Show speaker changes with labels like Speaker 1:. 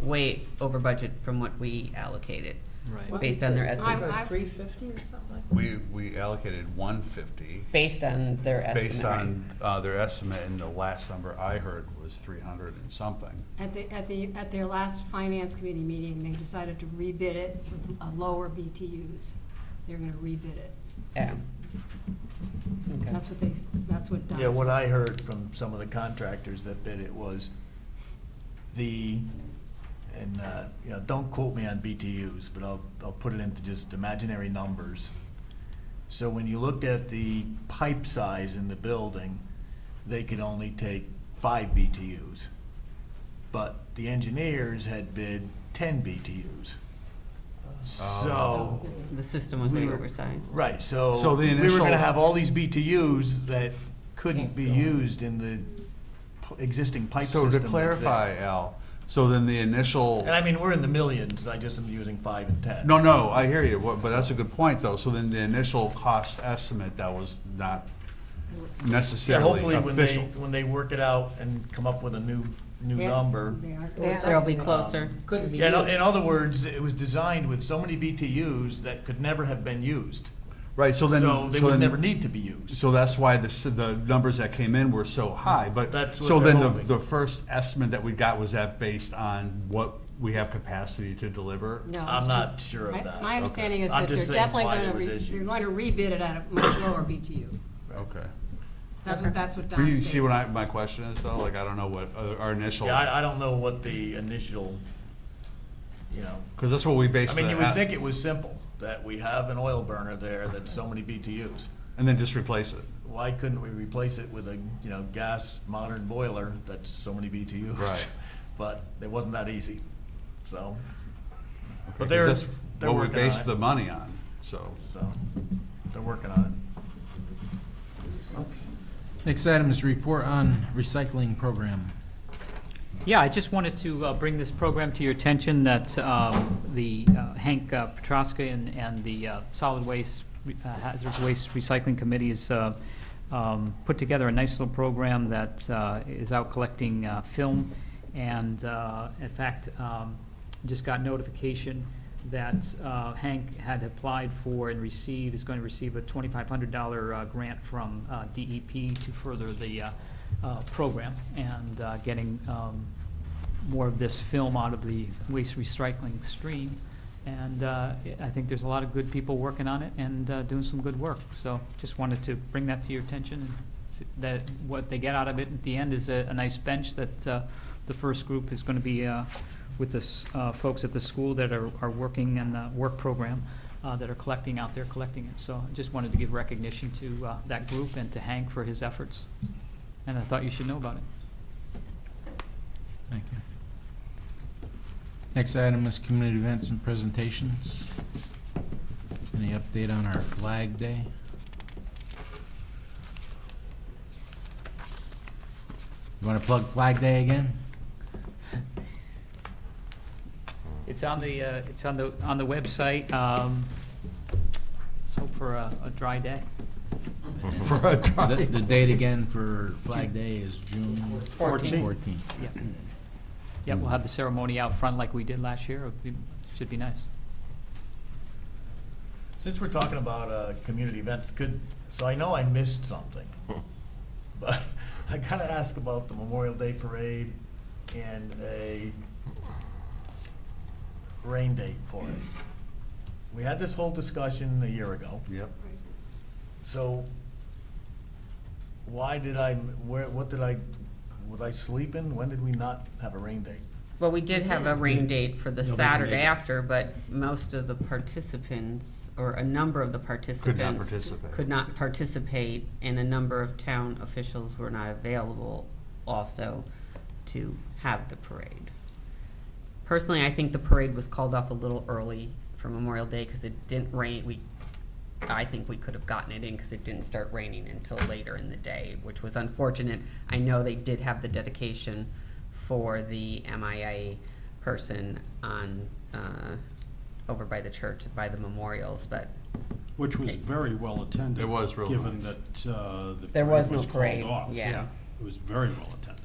Speaker 1: way over budget from what we allocated.
Speaker 2: Right.
Speaker 1: Based on their estimate.
Speaker 3: Three fifty or something like that?
Speaker 4: We, we allocated one fifty
Speaker 1: Based on their estimate.
Speaker 4: based
Speaker 1: right?
Speaker 4: on uh, their estimate, and the last number I heard was three hundred and something.
Speaker 5: At the, at the, at their last finance committee meeting, they decided to rebid it with a lower BTUs. They're gonna rebid it.
Speaker 1: Yeah. Okay.
Speaker 5: That's what they, that's what Don
Speaker 6: Yeah, what
Speaker 5: said.
Speaker 6: I heard from some of the contractors that bid it was the, and, uh, you know, don't quote me on BTUs, but I'll, I'll put it into just imaginary numbers. So when you looked at the pipe size in the building, they could only take five BTUs. But the engineers had bid ten BTUs. So.
Speaker 1: The system was
Speaker 6: We
Speaker 1: way
Speaker 6: were-
Speaker 1: oversized.
Speaker 6: Right, so
Speaker 4: So the
Speaker 6: we were
Speaker 4: initial-
Speaker 6: gonna have all these BTUs that couldn't be used in the p- existing pipe system.
Speaker 4: So to
Speaker 6: that's there.
Speaker 4: clarify, Al, so then the initial.
Speaker 6: And I mean, we're in the millions, I just am using five and ten.
Speaker 4: No, no, I hear you, What- but that's a good point, though. So then the initial cost estimate, that was not
Speaker 6: Yeah,
Speaker 4: necessarily
Speaker 6: hopefully when they,
Speaker 4: official.
Speaker 6: when they work it out and come up with a new, new
Speaker 1: Yeah.
Speaker 6: number.
Speaker 5: They are-
Speaker 3: Yeah.
Speaker 1: They'll be closer.
Speaker 3: Couldn't be
Speaker 6: Yeah, in o-
Speaker 3: used.
Speaker 6: in other words, it was designed with so many BTUs that could never have been used.
Speaker 4: Right, so then.
Speaker 6: So they
Speaker 4: so
Speaker 6: would
Speaker 4: then-
Speaker 6: never need to be used.
Speaker 4: So that's why the, s- the numbers that came in were so high, but.
Speaker 6: That's what
Speaker 4: So
Speaker 6: they're
Speaker 4: then the,
Speaker 6: hoping.
Speaker 4: the first estimate that we got, was that based on what we have capacity to deliver?
Speaker 5: No,
Speaker 6: I'm
Speaker 5: it's
Speaker 6: not sure
Speaker 5: My-
Speaker 6: of that.
Speaker 5: My understanding is
Speaker 6: I'm
Speaker 5: that they're
Speaker 6: just saying
Speaker 5: definitely
Speaker 6: why
Speaker 5: gonna,
Speaker 6: there was
Speaker 5: re- they're
Speaker 6: issues.
Speaker 5: going to rebid it at a much lower BTU.
Speaker 4: Okay.
Speaker 5: That's what, that's what
Speaker 4: Do
Speaker 5: Don
Speaker 4: you see
Speaker 5: said.
Speaker 4: what I, my question is, though? Like, I don't know what uh, our initial,
Speaker 6: Yeah, I, I don't know what the initial, you know,
Speaker 4: because that's what we
Speaker 6: I
Speaker 4: based.
Speaker 6: mean,
Speaker 4: the-
Speaker 6: you would think it was simple, that we have an oil burner there that's so many BTUs.
Speaker 4: And then just replace it.
Speaker 6: Why couldn't we replace it with a, you know, gas modern boiler that's so many BTUs?
Speaker 4: Right.
Speaker 6: But it wasn't that easy, so. But
Speaker 4: 'Cause
Speaker 6: they're,
Speaker 4: that's
Speaker 6: they're
Speaker 4: What we
Speaker 6: working on
Speaker 4: based the
Speaker 6: it,
Speaker 4: money on, so.
Speaker 6: so, they're working on
Speaker 7: Next item is report on recycling program.
Speaker 2: Yeah, I just wanted to uh, bring this program to your attention that um, the uh, Hank uh, Petrosca and, and the uh, Solid Waste, uh, Hazardous Waste Recycling Committee has uh, um, put together a nice little program that uh, is out collecting uh, film. And uh, in fact, um, just got notification that uh, Hank had applied for and received, is going to receive a $2,500 uh, grant from uh, DEP to further the uh, uh, program and uh, getting um, more of this film out of the waste recycling stream. And uh, I think there's a lot of good people working on it and uh, doing some good work. So just wanted to bring that to your attention and s- that what they get out of it at the end is a a nice bench that uh, the first group is going to be uh, with the s- uh, folks at the school that are are working in the work program uh, that are collecting out there, collecting it. So I just wanted to give recognition to uh, that group and to Hank for his efforts. And I thought you should know about it.
Speaker 7: Thank you. Next item is community events and presentations. Any update on our Flag Day? You want to plug Flag Day again?
Speaker 2: It's on the, uh, it's on the, on the website, um, so for a, a dry day.
Speaker 4: For a try.
Speaker 7: The the date again for Flag Day is June
Speaker 2: Fourteenth.
Speaker 7: 14th.
Speaker 2: Yeah. Yeah, we'll have the ceremony out front like we did last year, It'll be- should be nice.
Speaker 6: it. Since we're talking about, uh, community events, could, so I know I missed something. But I gotta ask about the Memorial Day Parade and a rain date for it. We had this whole discussion a year ago,
Speaker 4: Yep.
Speaker 6: so why did I, where, what did I, was I sleeping? When did we not have a rain date?
Speaker 1: Well, we did have a rain date for the
Speaker 7: Nobody
Speaker 1: Saturday
Speaker 7: made it.
Speaker 1: after, but most of the participants, or a number of the participants.
Speaker 4: participate.
Speaker 1: Could not participate, and a number of town officials were not available also to have the parade. Personally, I think the parade was called off a little early for Memorial Day, because it didn't rain, we, I think we could have gotten it in, because it didn't start raining until later in the day, which was unfortunate. I know they did have the dedication for the MIA person on, uh, over by the church, by the memorials, but
Speaker 8: Which was very well attended.
Speaker 4: It was real
Speaker 8: Given
Speaker 4: nice.
Speaker 8: that uh, the.
Speaker 1: There was no
Speaker 8: called
Speaker 1: parade,
Speaker 8: off.
Speaker 1: yeah.
Speaker 8: It was very well attended.